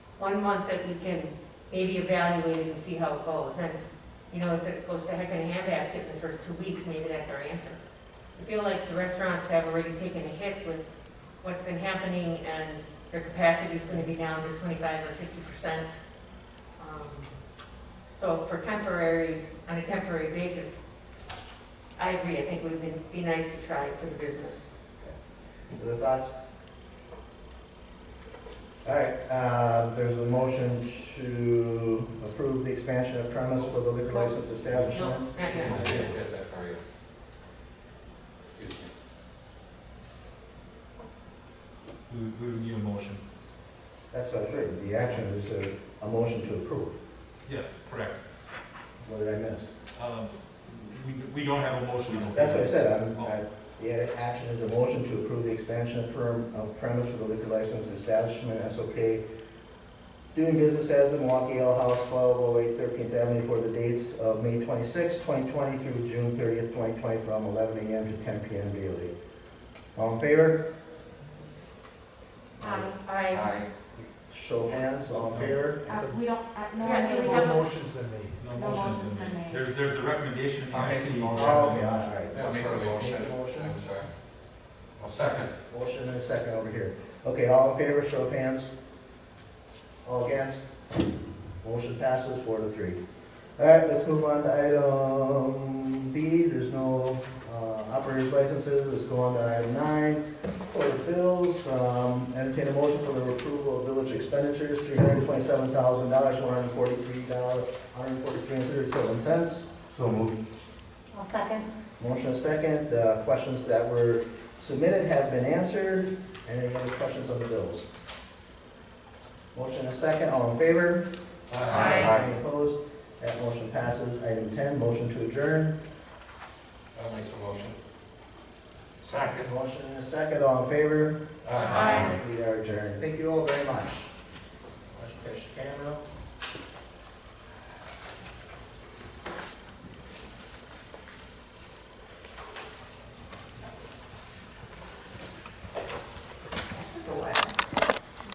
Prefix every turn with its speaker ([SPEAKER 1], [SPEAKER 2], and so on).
[SPEAKER 1] one month that we can maybe evaluate it and see how it goes. And, you know, if it goes to heck in a handbasket in the first two weeks, maybe that's our answer. I feel like the restaurants have already taken a hit with what's been happening and their capacity is gonna be down to twenty-five or fifty percent. Um, So for temporary, on a temporary basis, I agree, I think it would be- be nice to try it for the business.
[SPEAKER 2] Other thoughts? All right, uh, there's a motion to approve the expansion of premise for the liquor license
[SPEAKER 1] No,
[SPEAKER 2] establishment.
[SPEAKER 1] not yet.
[SPEAKER 3] I didn't get that far yet. Excuse me.
[SPEAKER 4] We, we would need a motion.
[SPEAKER 2] That's what I heard, the action is a, a motion to approve.
[SPEAKER 4] Yes, correct.
[SPEAKER 2] What did I miss?
[SPEAKER 4] Um, we, we don't have a motion. on the
[SPEAKER 2] That's what I
[SPEAKER 4] floor.
[SPEAKER 2] said, I'm, I, yeah, action is a motion to approve the expansion of perm, of premise for the liquor license establishment, SOK. Doing business as the Milwaukee Ale House, 1208 13th Avenue for the dates of May 26, twenty twenty through June thirtieth, twenty twenty, from eleven AM to ten PM daily. All in favor?
[SPEAKER 5] Aye.
[SPEAKER 1] I,
[SPEAKER 3] Aye.
[SPEAKER 2] Show of hands, all in favor?
[SPEAKER 5] Uh, we don't, uh, no,
[SPEAKER 1] Yeah,
[SPEAKER 5] we
[SPEAKER 1] we have
[SPEAKER 5] have a,
[SPEAKER 4] No
[SPEAKER 5] No
[SPEAKER 4] motion's
[SPEAKER 5] motion's
[SPEAKER 4] been
[SPEAKER 5] been
[SPEAKER 4] made.
[SPEAKER 5] made.
[SPEAKER 4] There's, there's a recommendation. in the
[SPEAKER 2] I'll make
[SPEAKER 4] IC
[SPEAKER 2] the
[SPEAKER 4] motion.
[SPEAKER 2] motion. Oh, okay, all right.
[SPEAKER 3] I'll make the motion.
[SPEAKER 2] Make the motion.
[SPEAKER 3] I'm sorry. I'll second.
[SPEAKER 2] Motion and a second over here. Okay, all in favor, show of hands. All against? Motion passes four to three. All right, let's move on to item B. There's no uh, operators licenses. Let's go on to item nine. Court of bills, um, entertain a motion for the approval of village expenditures, three hundred twenty-seven thousand dollars, one hundred forty-three dollars, one hundred forty-three and thirty-seven cents.
[SPEAKER 4] So moved.
[SPEAKER 5] I'll second.
[SPEAKER 2] Motion and second, uh, questions that were submitted have been answered. Any other questions on the bills? Motion and second, all in favor?
[SPEAKER 1] Aye.
[SPEAKER 2] Any opposed? That motion passes. Item ten, motion to adjourn.
[SPEAKER 3] I'll make the motion.
[SPEAKER 2] Motion and a second, all in favor?
[SPEAKER 1] Aye.
[SPEAKER 2] We are adjourned. Thank you all very much.